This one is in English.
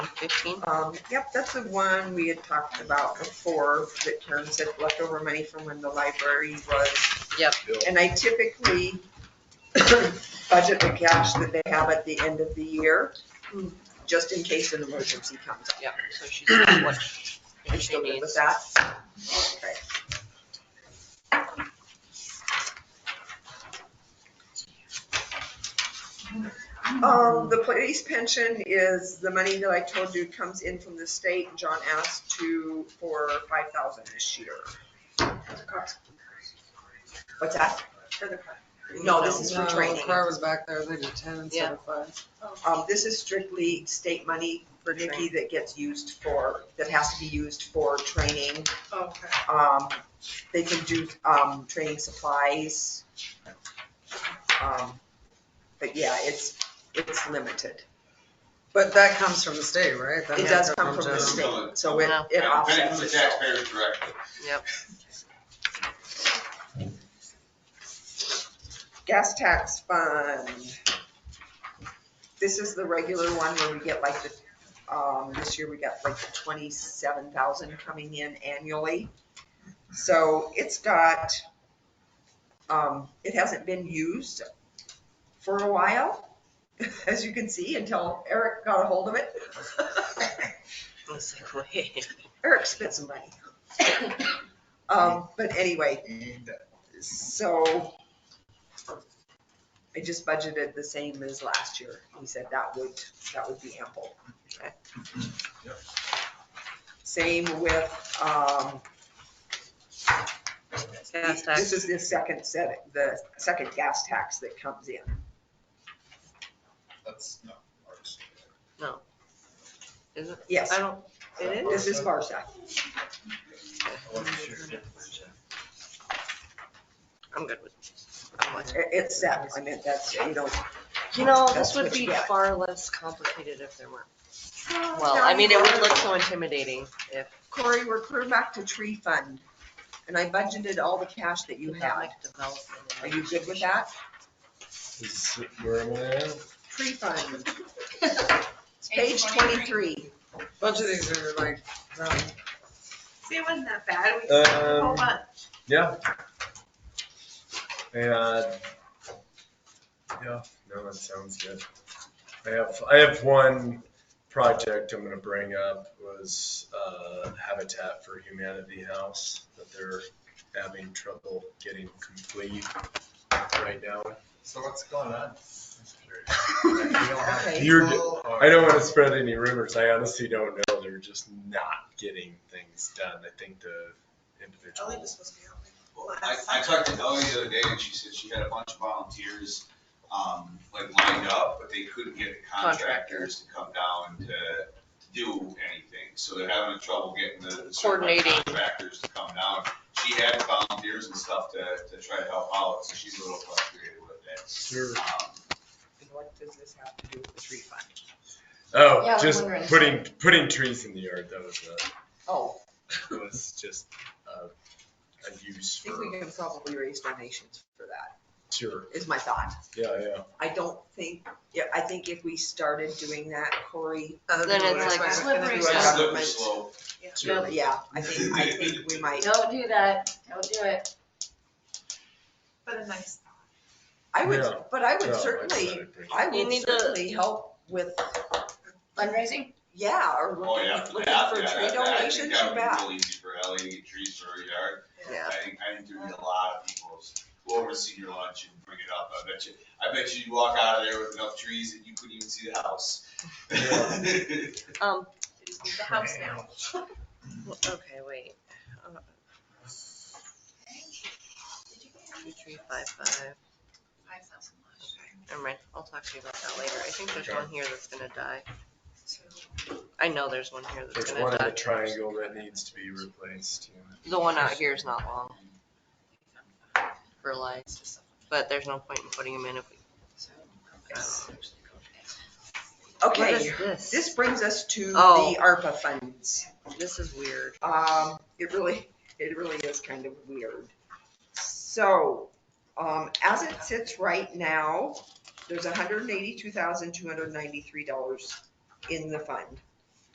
fifteen? Um, yep, that's the one we had talked about before, that Karen said leftover money from when the library was. Yep. And I typically budget the cash that they have at the end of the year, just in case an emergency comes up. Yep, so she's got what You're she still good needs. with that? Okay. Um, the police pension is the money that I told you comes in from the state. John asked to, for five thousand this year. What's that? For the car. No, this is for No, training. Where I was back there, they did ten instead of five. Um, this is strictly state money for Nikki that gets used for, that has to be used for training. Okay. Um, they can do, um, training supplies. Um, But yeah, it's, it's limited. But that comes from the state, right? That It does doesn't come from the general. It's still state, so it, Wow. it Benefits offsets the itself. taxpayers directly. Gas tax fund. This is the regular one where we get like the, um, this year we got like the twenty-seven thousand coming in annually. So it's got, um, it hasn't been used for a while, as you can see, until Eric got a hold of it. Let's see, wait. Eric spent some money. Um, but anyway, So I just budgeted the same as last year. He said that would, that would be ample. Okay. Same with, um, Gas this tax, is the second set, the second gas tax that comes in. That's not ours. is it? Yes, I don't, it is? this is Barsack. I wasn't sure. I'm good with I'm with it. It- It's set. I meant that's, you know, You know, That's this what would you be get. far less complicated if there weren't. Well, I mean, it would look so intimidating if Corey, we're clear back to tree fund. And I budgeted all the cash that you had. economic development. Are you good with that? Is it- Where am I at? Tree fund. It's Page twenty-three. Bunch of these are like, um, See, it wasn't that bad. We Um, just a whole month. Yeah. And, yeah, no, that sounds good. I have, I have one project I'm gonna bring up was, uh, Habitat for Humanity House that they're having trouble getting complete right now. So what's Oh, going on? Okay. You're, I don't want to spread any rumors. I honestly don't know. They're just not getting things done. I think the Ellie individual. was supposed to be helping. I, I talked to Ellie the other day and she said she had a bunch of volunteers, um, like lined up, but they couldn't get the contractors to come down to to do anything. So they're having trouble getting the. the certified Coordinating. Contractors to come down. She had volunteers and stuff to, to try to help out, so she's a little frustrated with it. Sure. Um, And what does this have to do with the tree fund? Oh, Yeah, I'm just wondering. putting, putting trees in the yard. That was, Oh, a- was just a, a use I think we for, can probably raise donations for that, sure. is my thought. Yeah, yeah. I don't think, yeah, I think if we started doing that, uh, Corey, other Then than it's what I like was- slippery other than what I Slippery was- government. slope. sure. yeah, I think, I think we might. Don't do that, don't do it. But a nice thought. I would, Yeah. but I No, would I certainly, decided to bring it I up. You would need to- certainly help with, Fundraising? yeah, or Oh, looking, yeah. looking That- for yeah, tree that- that- I donations, think you that would be bet. really easy for Ellie to get trees for her yard. Yeah. I think, I think there'd be a lot of people who over senior lunch and bring it up. I bet you, I bet you you'd walk out of there with enough trees that you couldn't even see the house. Um, They just need the house now. well, okay, wait. Uh, Two, three, five, five. Five thousand less. Never mind. I'll talk to you about that later. I think there's Okay. one here that's gonna die. So, I know there's one here that's There's gonna one in the die. triangle that needs to be replaced. you know. The one out here is not long for life, but there's no point in putting them in if we. What Okay, is this? this brings us to Oh. the ARPA funds. This is weird. Um, it really, it really is kind of weird. So, um, as it sits right now, there's hundred and eighty-two thousand, two hundred and ninety-three dollars in the fund.